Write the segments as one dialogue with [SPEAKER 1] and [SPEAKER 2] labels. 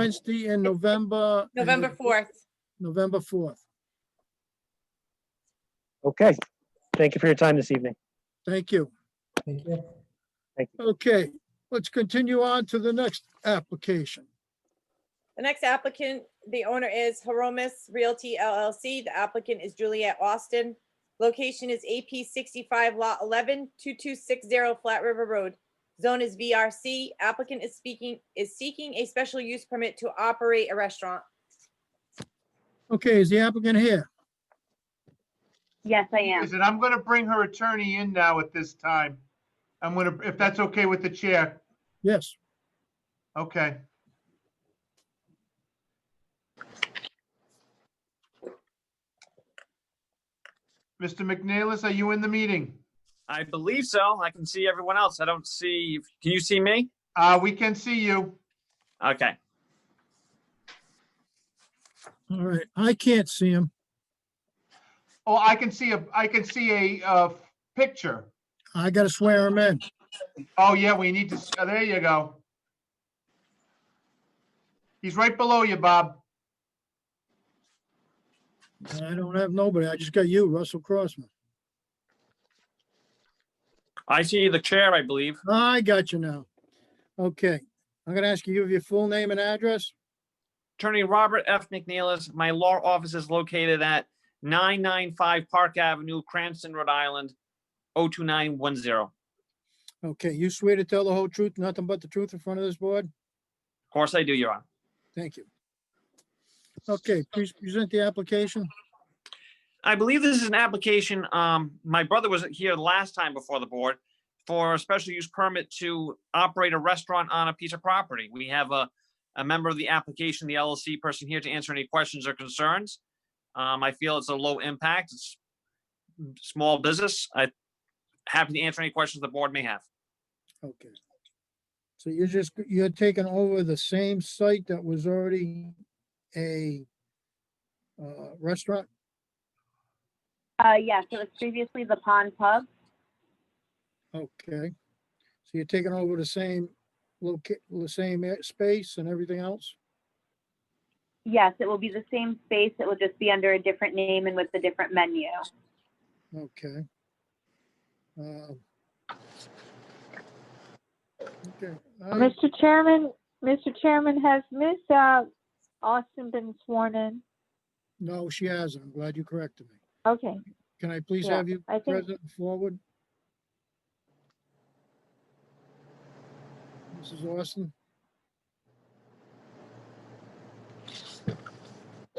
[SPEAKER 1] Wednesday in November. and
[SPEAKER 2] November fourth.
[SPEAKER 1] November fourth.
[SPEAKER 3] Okay. Thank you for your time this evening.
[SPEAKER 1] Thank you.
[SPEAKER 4] Thank you.
[SPEAKER 1] Okay, let's continue on to the next application.
[SPEAKER 2] The next applicant, the owner is Horomis Realty LLC. The applicant is Juliet Austin. Location is AP sixty-five lot 11, 2260 Flat River Road. Zone is VRC. Applicant is speaking, is seeking a special use permit to operate a restaurant.
[SPEAKER 1] Okay, is the applicant here?
[SPEAKER 5] Yes, I am.
[SPEAKER 6] is that I'm gonna bring her attorney in now at this time. I'm gonna, if that's okay with the chair,
[SPEAKER 1] Yes.
[SPEAKER 6] okay. Mr. McNeilis, are you in the meeting?
[SPEAKER 7] I believe so. I can see everyone else. I don't see, can you see me?
[SPEAKER 6] Uh, we can see you.
[SPEAKER 7] Okay.
[SPEAKER 1] All right, I can't see him.
[SPEAKER 6] Oh, I can see a, I can see a, uh, picture.
[SPEAKER 1] I gotta swear him in.
[SPEAKER 6] Oh, yeah, we need to, s- uh, there you go. He's right below you, Bob.
[SPEAKER 1] I don't have nobody. I just got you, Russell Crossman.
[SPEAKER 7] I see the chair, I believe.
[SPEAKER 1] I got you now. Okay, I'm gonna ask you of your full name and address.
[SPEAKER 7] Attorney Robert F. McNeilis, my law office is located at 995 Park Avenue, Cranston, Rhode Island, 02910. Of
[SPEAKER 1] Okay, you swear to tell the whole truth, nothing but the truth in front of this board?
[SPEAKER 7] course I do, Your Honor.
[SPEAKER 1] Thank you. Okay, please present the application.
[SPEAKER 7] I believe this is an application, um, my brother was here last time before the board for a special use permit to operate a restaurant on a piece of property. We have a, a member of the application, the LLC person here to answer any questions or concerns. Um, I feel it's a low impact, it's small business. I happy to answer any questions the board may have.
[SPEAKER 1] Okay. So you're just, you're taking over the same site that was already a uh, restaurant?
[SPEAKER 5] Uh, yes, it was previously the Pond Pub.
[SPEAKER 1] Okay. So you're taking over the same loca, the same a- space and everything else?
[SPEAKER 5] Yes, it will be the same space. It will just be under a different name and with a different menu.
[SPEAKER 1] Okay. Um, Okay. I-
[SPEAKER 8] Mr. Chairman, Mr. Chairman, has Ms. uh, Austin been sworn in?
[SPEAKER 1] No, she hasn't. I'm glad you corrected me.
[SPEAKER 8] Okay,
[SPEAKER 1] Can I please
[SPEAKER 8] Yeah,
[SPEAKER 1] have you
[SPEAKER 8] I think-
[SPEAKER 1] present forward? Mrs. Austin?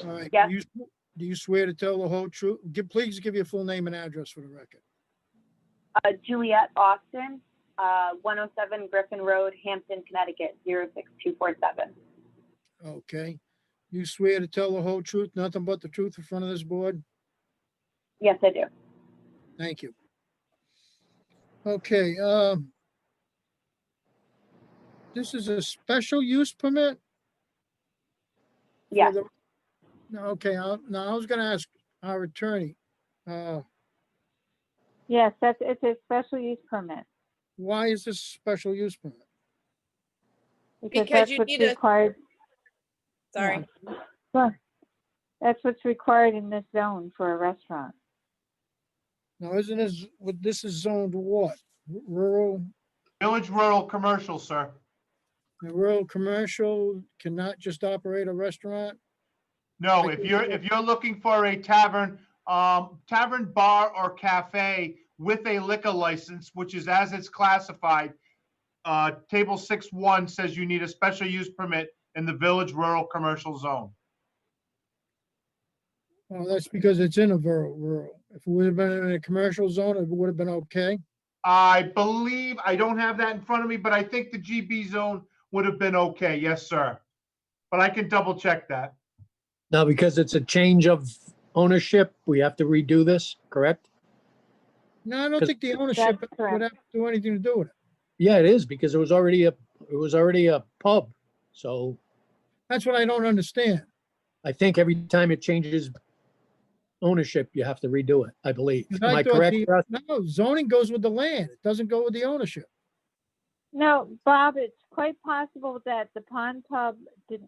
[SPEAKER 1] All right.
[SPEAKER 5] Yeah.
[SPEAKER 1] do you sw- Do you swear to tell the whole truth? Give- Please give your full name and address for the record.
[SPEAKER 5] Uh, Juliet Austin, uh, 107 Griffin Road, Hampton, Connecticut, 06247.
[SPEAKER 1] Okay. You swear to tell the whole truth, nothing but the truth in front of this board?
[SPEAKER 5] Yes, I do.
[SPEAKER 1] Thank you. Okay, um. This is a special use permit? for
[SPEAKER 5] Yes.
[SPEAKER 1] the- No, okay, I- now I was gonna ask our attorney, uh,
[SPEAKER 8] yes, that's, it's a special use permit.
[SPEAKER 1] why is this special use permit?
[SPEAKER 8] Because
[SPEAKER 2] Because
[SPEAKER 8] that's
[SPEAKER 2] you
[SPEAKER 8] what's
[SPEAKER 2] need a-
[SPEAKER 8] required,
[SPEAKER 2] Sorry.
[SPEAKER 8] that's what's required in this zone for a restaurant.
[SPEAKER 1] Now, isn't this, what, this is zoned what? Rural,
[SPEAKER 6] Village Rural Commercial, sir.
[SPEAKER 1] rural commercial cannot just operate a restaurant?
[SPEAKER 6] No,
[SPEAKER 1] Like
[SPEAKER 6] if
[SPEAKER 1] we
[SPEAKER 6] you're,
[SPEAKER 1] do.
[SPEAKER 6] if you're looking for a tavern, um, tavern, bar or cafe with a liquor license, which is as it's classified, uh, table six one says you need a special use permit in the village rural commercial zone.
[SPEAKER 1] Well, that's because it's in a rural, rural. If it would have been in a commercial zone, it would have been okay.
[SPEAKER 6] I believe, I don't have that in front of me, but I think the GB zone would have been okay. Yes, sir. But I can double check that.
[SPEAKER 9] Now, because it's a change of ownership, we have to redo this, correct?
[SPEAKER 1] No, I don't
[SPEAKER 9] 'Cause-
[SPEAKER 1] think the ownership
[SPEAKER 8] That's
[SPEAKER 1] would
[SPEAKER 8] correct.
[SPEAKER 1] have to do anything to do with it.
[SPEAKER 9] Yeah, it is, because it was already a, it was already a pub. So
[SPEAKER 1] That's what I don't understand.
[SPEAKER 9] I think every time it changes ownership, you have to redo it, I believe.
[SPEAKER 1] 'Cause
[SPEAKER 9] Am
[SPEAKER 1] I
[SPEAKER 9] I
[SPEAKER 1] thought
[SPEAKER 9] correct?
[SPEAKER 1] the-
[SPEAKER 9] Russ?
[SPEAKER 1] No, zoning goes with the land. It doesn't go with the ownership.
[SPEAKER 8] No, Bob, it's quite possible that the Pond Pub did